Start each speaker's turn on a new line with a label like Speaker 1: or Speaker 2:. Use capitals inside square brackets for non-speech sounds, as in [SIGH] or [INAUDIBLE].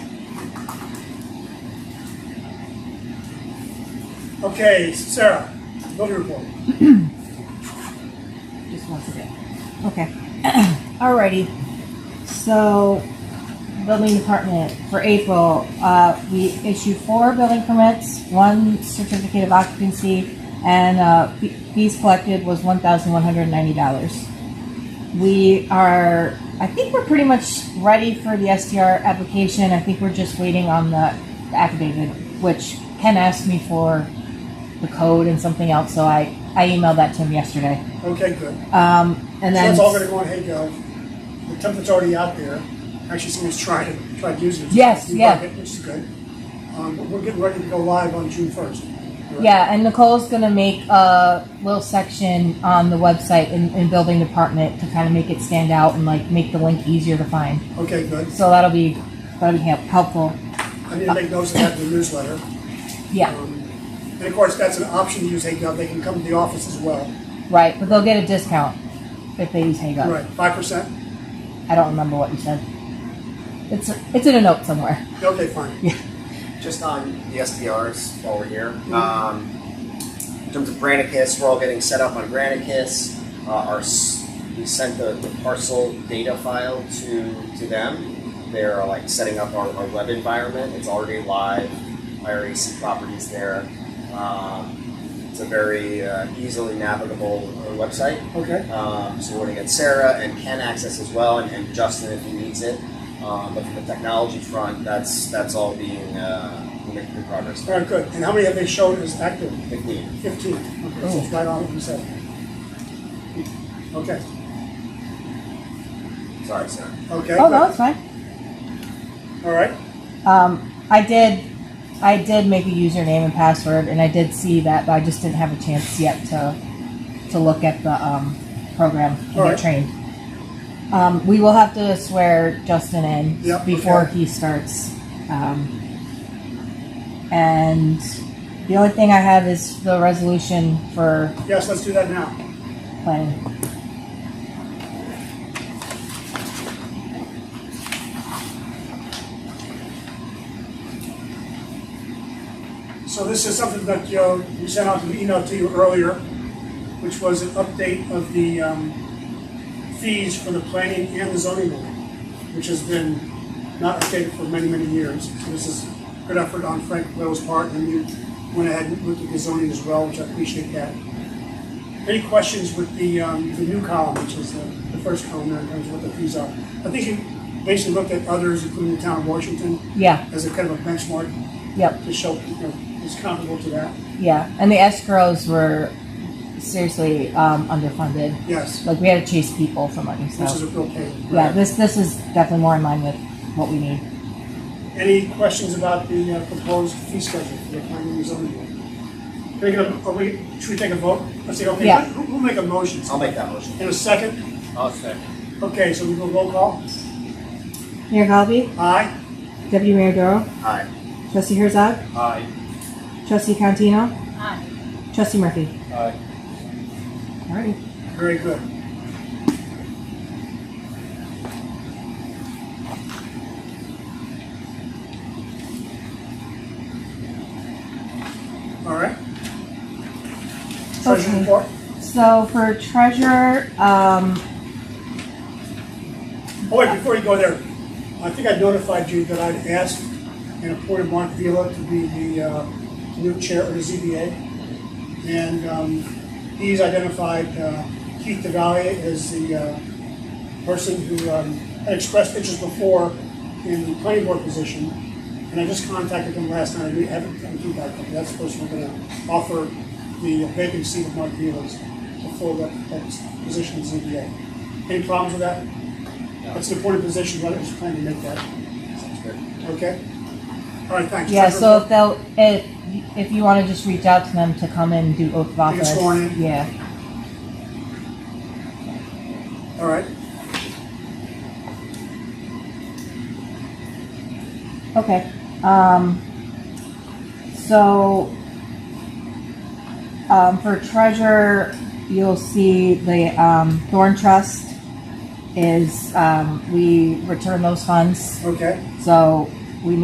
Speaker 1: Okay, Sarah, voter report.
Speaker 2: just once a day. Okay. [CLEARS THROAT] Alrighty. So, building department for April, uh, we issued four building permits, one certificate of occupancy, and, uh, fe- fees collected was one thousand one hundred and ninety dollars. We are, I think we're pretty much ready for the SDR application. I think we're just waiting on the affidavit, which Ken asked me for the code and something else, so I, I emailed that to him yesterday.
Speaker 1: Okay, good.
Speaker 2: Um,
Speaker 1: So
Speaker 2: and then
Speaker 1: that's all gonna go on HayGov. The template's already out there. Actually, somebody's tried it, tried using it.
Speaker 2: Yes,
Speaker 1: We
Speaker 2: yeah.
Speaker 1: like it, Which is good. Um, but we're getting ready to go live on June first.
Speaker 2: yeah, and Nicole's gonna make a little section on the website in, in building department to kind of make it stand out and like make the link easier to find.
Speaker 1: Okay, good.
Speaker 2: So that'll be that'll be help, helpful.
Speaker 1: I need to make notes of that in the newsletter.
Speaker 2: Yeah,
Speaker 1: Um, And of course, that's an option to use HayGov. They can come to the office as well.
Speaker 2: right. But they'll get a discount if they use Hago.
Speaker 1: Right, five percent?
Speaker 2: I don't remember what you said. It's it's in a note somewhere.
Speaker 1: Okay, fine.
Speaker 3: Just on the SDRs while we're here. Um, in terms of Granicus, we're all getting set up on Granicus. Uh, our s- we sent the, the parcel data file to to them. They're uh, like setting up our, our web environment. It's already live. I already see properties there. Um, it's a very uh, easily navigable uh, website.
Speaker 1: Okay,
Speaker 3: Um, so we're going to get Sarah and Ken access as well, and, and Justin if he needs it. Um, but from the technology front, that's that's all being uh, we're making good progress.
Speaker 1: all right, good. And how many have they shown as active?
Speaker 3: I think we-
Speaker 1: Fifteen. Okay, so it's
Speaker 2: Oh.
Speaker 1: right on what you said. Okay,
Speaker 3: Sorry, Sarah.
Speaker 1: okay,
Speaker 2: Oh no,
Speaker 1: good.
Speaker 2: it's fine.
Speaker 1: All right,
Speaker 2: Um, I did I did make a username and password, and I did see that, but I just didn't have a chance yet to to look at the um, program and
Speaker 1: All
Speaker 2: get
Speaker 1: right.
Speaker 2: trained. Um, we will have to swear Justin in
Speaker 1: Yep,
Speaker 2: before
Speaker 1: okay.
Speaker 2: he starts. Um, and the only thing I have is the resolution for
Speaker 1: yes, let's do that now.
Speaker 2: planning.
Speaker 1: So this is something that, you know, we sent out an email to you earlier, which was an update of the, um, fees for the planning and the zoning board, which has been not updated for many, many years. So this is good effort on Frank Lowe's part, and you went ahead and looked at the zoning as well, which I appreciate that. Any questions with the, um, the new column, which is the, the first column there, in terms of what the fees are? I think you basically looked at others, including the town of Washington,
Speaker 2: Yeah,
Speaker 1: as a kind of a benchmark
Speaker 2: yep,
Speaker 1: to show you know, it's comparable to that.
Speaker 2: yeah. And the escrows were seriously um, underfunded.
Speaker 1: Yes,
Speaker 2: Like we had to chase people for money. So.
Speaker 1: which is a real pain.
Speaker 2: Yeah, this this is definitely more in line with what we need.
Speaker 1: Any questions about the uh, proposed fee schedule for the planning and zoning board? Can I get a- are we- should we take a vote? Let's see, okay,
Speaker 2: Yeah.
Speaker 1: who, who make a motion?
Speaker 3: I'll make that motion.
Speaker 1: In a second?
Speaker 3: I'll second.
Speaker 1: Okay, so we go roll call.
Speaker 2: Mayor Galbi,
Speaker 1: Aye?
Speaker 2: Deputy Mayor Doro,
Speaker 3: Aye.
Speaker 2: Trustee Herzog,
Speaker 3: Aye.
Speaker 2: Trustee Cantino, Trustee Murphy.
Speaker 3: Aye.
Speaker 2: Alrighty.
Speaker 1: Very good. All right. Treasury
Speaker 2: Okay.
Speaker 1: report?
Speaker 2: So for treasurer, um,
Speaker 1: Oh, wait, before you go there, I think I notified you that I'd asked and appointed Mark Vila to be the uh, new chair of the ZBA. And um, he's identified uh, Keith DeValier as the uh, person who um, had expressed interest before in the planning board position. And I just contacted him last night, we haven't gotten feedback from him, that's the person we're gonna offer the vacancy of Mark Vila's before that, that position in ZBA. Any problems with that? That's an important position, right, I was planning to make that,
Speaker 3: Sounds good.
Speaker 1: okay? All right, thanks.
Speaker 2: yeah. So
Speaker 1: Treasurer-
Speaker 2: if they'll if if you want to just reach out to them to come and do oath of
Speaker 1: Get
Speaker 2: office,
Speaker 1: sworn in.
Speaker 2: yeah.
Speaker 1: All right,
Speaker 2: Okay. Um, so, um, for treasure, you'll see the um, Thorn Trust is um, we return those funds.
Speaker 1: okay,
Speaker 2: So